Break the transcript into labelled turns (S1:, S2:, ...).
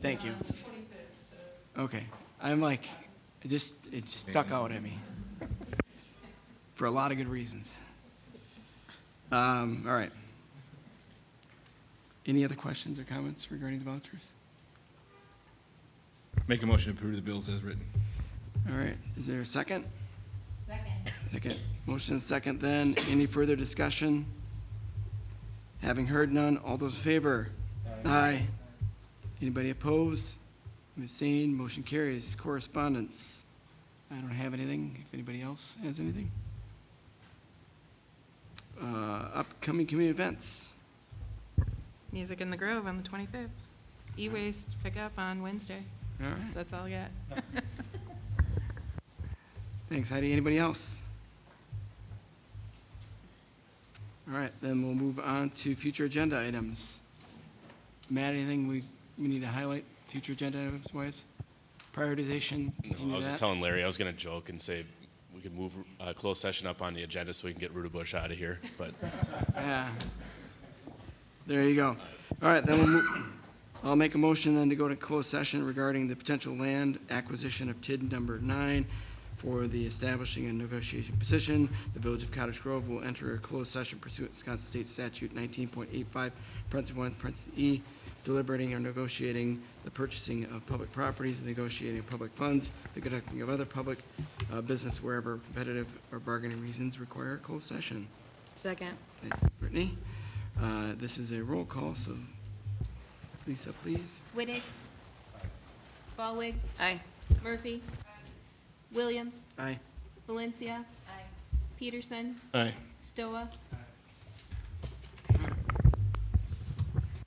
S1: Thank you. Okay, I'm like, it just, it stuck out at me. For a lot of good reasons. Um, all right. Any other questions or comments regarding the vouchers?
S2: Make a motion to approve the bills as written.
S1: All right, is there a second?
S3: Second.
S1: Second. Motion is second then. Any further discussion? Having heard none, all those in favor? Aye. Anybody opposed? Abstained, motion carries. Correspondence? I don't have anything. If anybody else has anything? Uh, Upcoming community events.
S4: Music in the Grove on the 25th. E-waste pickup on Wednesday.
S1: All right,
S4: That's all I got.
S1: thanks Heidi. Anybody else? All right, then we'll move on to future agenda items. Matt, anything we, we need to highlight, future agenda items wise? Prioritization,
S5: No, I
S1: continue
S5: was just
S1: that?
S5: telling Larry, I was going to joke and say we could move uh, closed session up on the agenda so we can get Ruda Bush out of here. But
S1: Yeah. There you go. All right, then we'll, mo- I'll make a motion then to go to closed session regarding the potential land acquisition of TID number nine for the establishing and negotiation position. The Village of Cottage Grove will enter a closed session pursuant to Wisconsin State Statute nineteen point eight five, parentheses one, parentheses E, deliberating or negotiating the purchasing of public properties, the negotiating of public funds, the conducting of other public, uh, business wherever competitive or bargaining reasons require a closed session.
S3: Second.
S1: Thank you, Brittany. Uh, This is a roll call, so Lisa, please.
S3: Whittig. Ballwig. Aye. Murphy. Williams.
S1: Aye.
S3: Valencia. Peterson.
S2: Aye.
S3: Stoa.